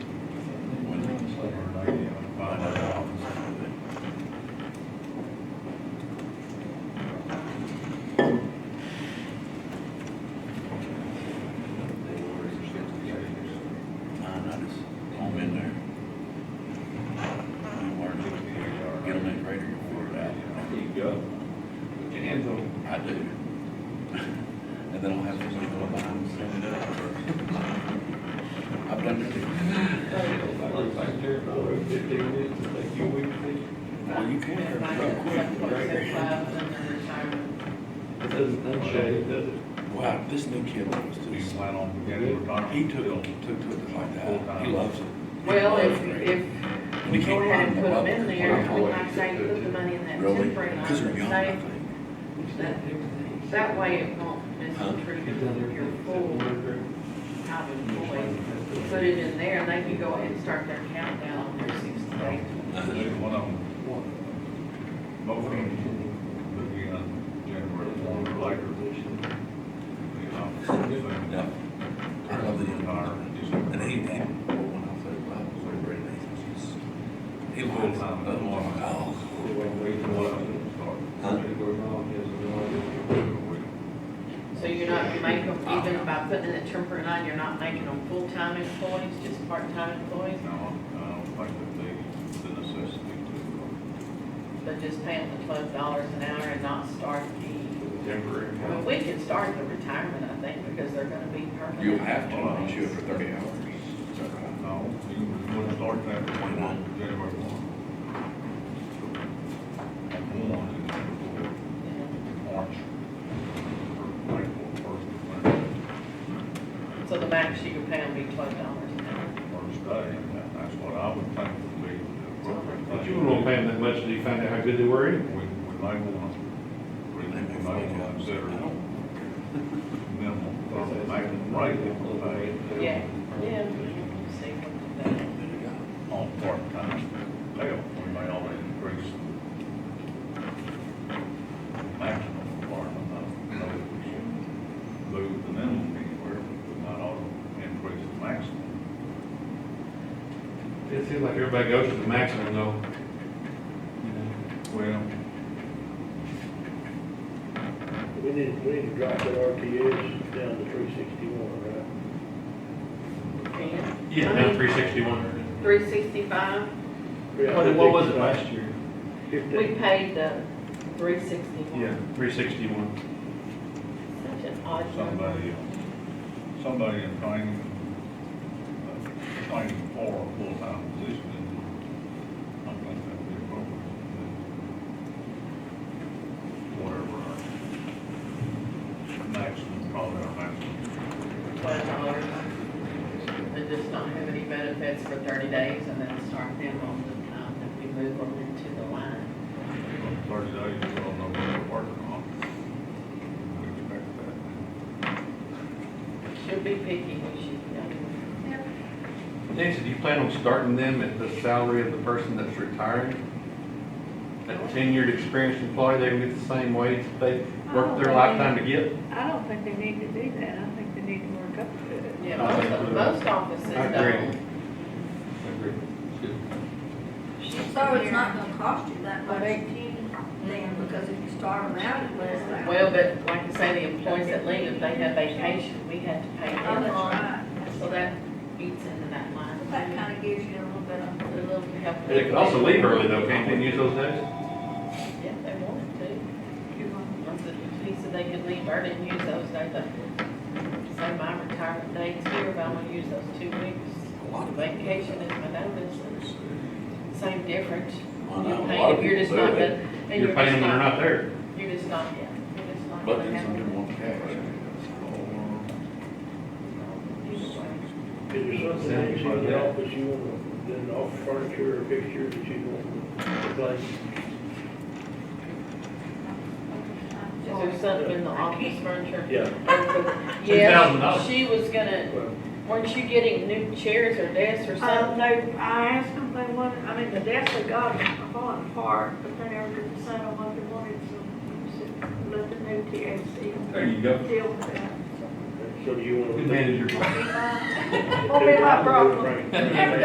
Yeah. And the, I do. And then I'll have to leave it alone. send it up. I've done it too. like, like there, for fifteen minutes, it's like you week, Well, you can, And not mine real is quick. like what, six labs and then retirement. it doesn't unshade, does it? Wow, this new kid was We just, plan on beginning, we're talking. he took, took to it like that. He loves it. He Well, if, loves it. if And we he go can't ahead and find the put them in bubble. there, we might say put the money in that Really? temporary line Because they're young, I and think. save. That- That way it won't mistreat your full time employee. Put it in there and they can go ahead and start their countdown on their sixty days. Uh-huh. One of them, moving, moving on January one, or later. You know, so they- Yeah. I love the young Or man. December. And he, he, when I played club, it was very nice. He's- He loves it. Oh, Huh? So you're not, you make them, Ah. even by putting in that temporary line, you're not making them full-time employees, just part-time employees, No, I don't think that they, the necessity uh, but just pay them the twelve dollars an hour and not start the, Temporary. I mean, we can start the retirement, I think, because they're gonna be permanent. You'll have to, once you for thirty hours. Is that to, right? no, you would start that one, January one. And one, and then before. Yeah. March. or April first, when So the max you can pay them be twelve dollars an hour. it's first day, and that- that's what I would think would be the appropriate But thing. you won't pay them that much until you find out how good they were We, in. we may want, we we may want to consider minimum, or maximum rate that we pay. Yeah, yeah. See what they do. On part-time, pay, we may only increase maximum part-time, no, we should move the minimum anywhere, but we might ought to increase the maximum. It seems like everybody goes to the maximum though. You know. Well, We need, we need to drop that RTS down to three sixty-one, right? Can? Yeah, I down mean, three sixty-one. Three sixty-five, What, what was it last year? we Fifteen. paid the three sixty-one. Three sixty-one. Such an odd number. somebody, uh, somebody in training, uh, training for a full-time position, and I think that'd be appropriate. Whatever our maximum, probably our maximum. twelve dollars. And just not have any benefits for thirty days and then start them on the time that we move them into the line. Thirty days, we all know what we're working on. We expect that. Should be picky, we should, I mean, Nancy, do you plan on starting them at the salary of the person that's retiring? That tenured, experienced employee, they can get the same wage that they worked Oh, their lifetime to get? I don't think they need to do that, I think they need to work up to it. yeah, most, of- most offices I agree. don't. So it's not gonna cost you that much then, because if you start them out, it lasts that. Well, but like I say, the employees that leave, if they have vacation, we had to pay Oh, them. that's right. So that eats into that line. That kinda gives you a little bit A of, little help. And They can also leave early though, can't they use those days? Yeah, if they wanted to. Once it, he said they could leave early and use those days. I- Say my retirement days here, if I want to use those two weeks. A lot of Vacation is my notice, It's, uh, same difference. Well, You're no, a paying- lot of You're just people not, do the- it. and You're you're paying them when just they're not, not there. you're just not, yeah, you're just not. But gonna then have some them. didn't want cash. Either way. Is there something Sound that's in the office you want, then off furniture or fixtures that you want to replace? Is there something in the office furniture? Yeah. Yeah, $2,000. she was gonna, Well, weren't you getting new chairs or desks or uh, something? they, I asked them if they wanted, I mean, the desk they got is falling apart, but they never could decide on what they wanted, so let the new TAC. There you go. Deal with that. So do you want to? Good manager. Won't be my problem. Frank.